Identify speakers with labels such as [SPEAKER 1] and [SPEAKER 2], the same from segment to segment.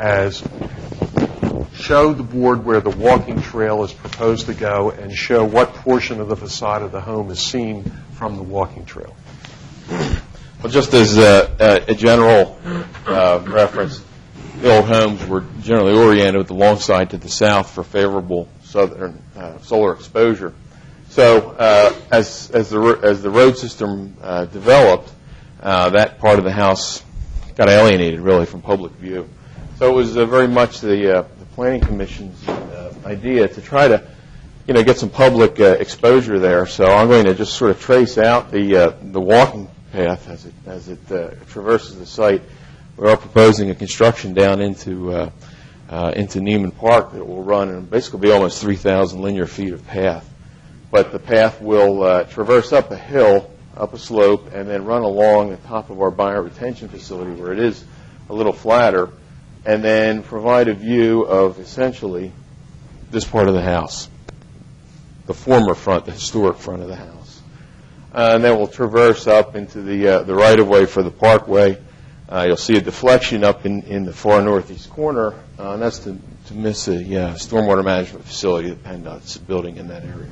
[SPEAKER 1] as show the board where the walking trail is proposed to go and show what portion of the facade of the home is seen from the walking trail.
[SPEAKER 2] Well, just as uh, a, a, a general uh, reference, the old homes were generally oriented with the long side to the south for favorable southern uh, solar exposure. So uh, as, as, the, ro- as the road system uh, developed, uh, that part of the house got alienated really from public view. So it was uh, very much the, uh, the Planning Commission's uh, idea to try to you know, get some public uh, exposure there. So I'm going to just sort of trace out the uh, the walking path as it as it uh, traverses the site. We are proposing a construction down into uh, uh, into Neiman Park that will run and basically be almost 3,000 linear feet of path. But the path will uh, traverse up a hill, up a slope, and then run along the top of our buyer retention facility where it is a little flatter, and then provide a view of essentially this part of the house the former front, the historic front of the house. Uh, and then we'll traverse up into the, uh, the right of way for the parkway. Uh, you'll see a deflection up in, in the far northeast corner, uh, and that's to, to miss a yeah, stormwater management facility that PennDOT's building in that area.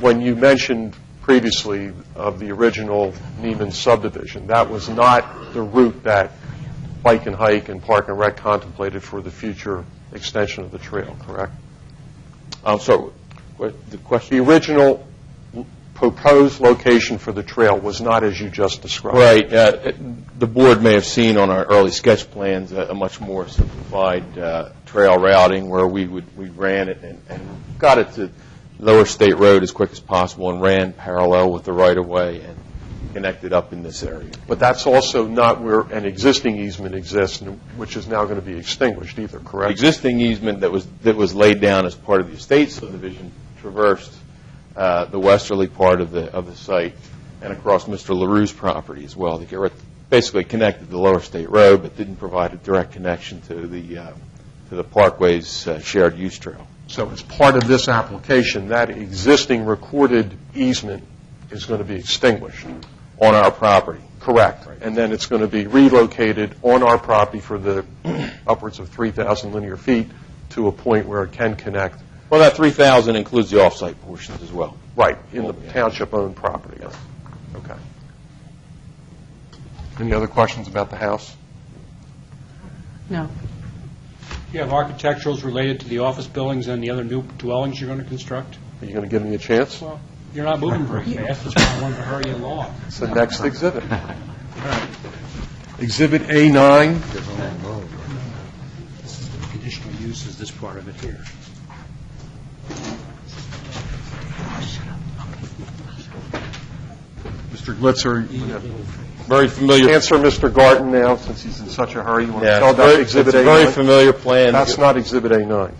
[SPEAKER 1] When you mentioned previously of the original Neiman subdivision, that was not the route that Bike and Hike and Park and Rec contemplated for the future extension of the trail, correct?
[SPEAKER 2] I'm sorry, Um, what, the question?
[SPEAKER 1] The original l- proposed location for the trail was not as you just described.
[SPEAKER 2] Right. uh, it- The board may have seen on our early sketch plans a a much more simplified uh, trail routing where we would, we ran it and and got it to Lower State Road as quick as possible and ran parallel with the right-of-way and connected up in this area.
[SPEAKER 1] But that's also not where an existing easement exists, and- which is now going to be extinguished either,
[SPEAKER 2] The
[SPEAKER 1] correct?
[SPEAKER 2] existing easement that was, that was laid down as part of the estate subdivision traversed uh, the westerly part of the, of the site and across Mr. LaRue's property as well. They were basically connected to Lower State Road, but didn't provide a direct connection to the, uh, to the Parkway's uh, shared use trail.
[SPEAKER 1] So as part of this application, that existing recorded easement is going to be extinguished,
[SPEAKER 2] On our property,
[SPEAKER 1] correct? And then it's going to be relocated on our property for the upwards of 3,000 linear feet to a point where it can connect,
[SPEAKER 2] well, that 3,000 includes the off-site portions as well.
[SPEAKER 1] right, in the township-owned property. Okay. Any other questions about the house?
[SPEAKER 3] No.
[SPEAKER 4] You have architecturals related to the office buildings and the other new dwellings you're going to construct?
[SPEAKER 1] Are you going to give me a chance?
[SPEAKER 4] Well, you're not moving very fast, that's why I wanted to hurry you along.
[SPEAKER 1] It's the next exhibit. Exhibit A9,
[SPEAKER 4] Conditional use is this part of it here.
[SPEAKER 1] Mr. Glitzer, you have-
[SPEAKER 2] Very familiar.
[SPEAKER 1] answer Mr. Garten now, since he's in such a hurry. You want to
[SPEAKER 2] Yeah,
[SPEAKER 1] tell about
[SPEAKER 2] very-
[SPEAKER 1] Exhibit
[SPEAKER 2] It's a very
[SPEAKER 1] A9?
[SPEAKER 2] familiar plan.
[SPEAKER 1] That's not Exhibit A9.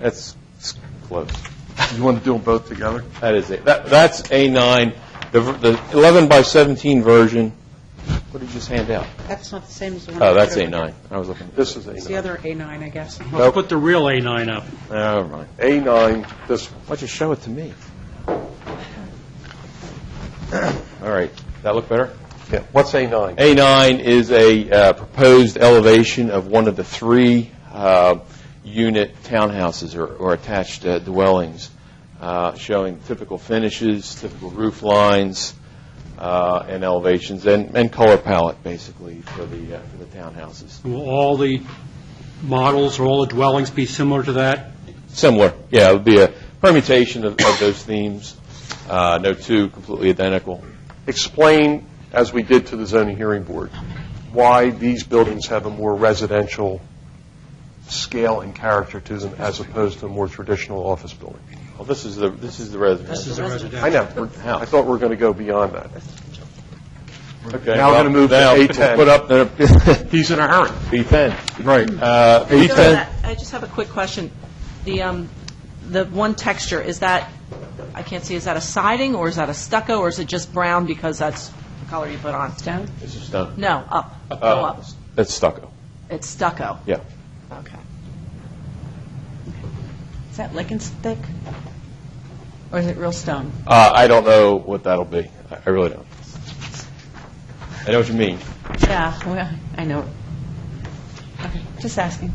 [SPEAKER 2] That's it's close.
[SPEAKER 1] You want to do them both together?
[SPEAKER 2] That is it. That, that's A9. The, ver- the 11 by 17 version. What did you just hand out?
[SPEAKER 3] That's not the same as the one.
[SPEAKER 2] Oh, that's
[SPEAKER 3] I showed.
[SPEAKER 2] A9. I was looking.
[SPEAKER 1] This is
[SPEAKER 3] It's the
[SPEAKER 1] A9.
[SPEAKER 3] other A9, I guess.
[SPEAKER 4] Let's put the real A9 up.
[SPEAKER 2] Oh, never mind.
[SPEAKER 1] A9, this, one.
[SPEAKER 2] Why don't you show it to me? All right. That look better?
[SPEAKER 1] yeah, what's A9?
[SPEAKER 2] A9 is a uh, proposed elevation of one of the three uh, unit townhouses or- or attached uh, dwellings, uh, showing typical finishes, typical roof lines, uh, and elevations, and and color palette, basically, for the uh, for the townhouses.
[SPEAKER 4] Will all the models or all the dwellings be similar to that?
[SPEAKER 2] Similar, yeah, it would be a permutation of of those themes, Uh, no two completely identical.
[SPEAKER 1] Explain, as we did to the zoning hearing board, why these buildings have a more residential scale and character to them as opposed to a more traditional office building.
[SPEAKER 2] Well, this is the this is the residence.
[SPEAKER 4] a
[SPEAKER 1] I
[SPEAKER 4] residential.
[SPEAKER 1] know, we're- I thought we were going to go beyond that.
[SPEAKER 2] Okay,
[SPEAKER 1] Now we're gonna
[SPEAKER 2] well,
[SPEAKER 1] move to
[SPEAKER 2] now
[SPEAKER 1] A10.
[SPEAKER 2] Put up the
[SPEAKER 1] He's in a hurry.
[SPEAKER 2] B10.
[SPEAKER 1] Right.
[SPEAKER 2] Uh,
[SPEAKER 3] So
[SPEAKER 2] B10,
[SPEAKER 3] that- I just have a quick question. The, um, the one texture, is that, I can't see, is that a siding, or is that a stucco, or is it just brown because that's the color you put on? Stone?
[SPEAKER 2] this is done.
[SPEAKER 3] No, up, go up.
[SPEAKER 2] That's Oh, stucco,
[SPEAKER 3] It's stucco.
[SPEAKER 2] yeah.
[SPEAKER 3] Okay. Is that licking stick? Or is it real stone?
[SPEAKER 2] Uh, I don't know what that'll be. I I really don't. I know what you mean.
[SPEAKER 3] Yeah, well, I know. Okay, just asking.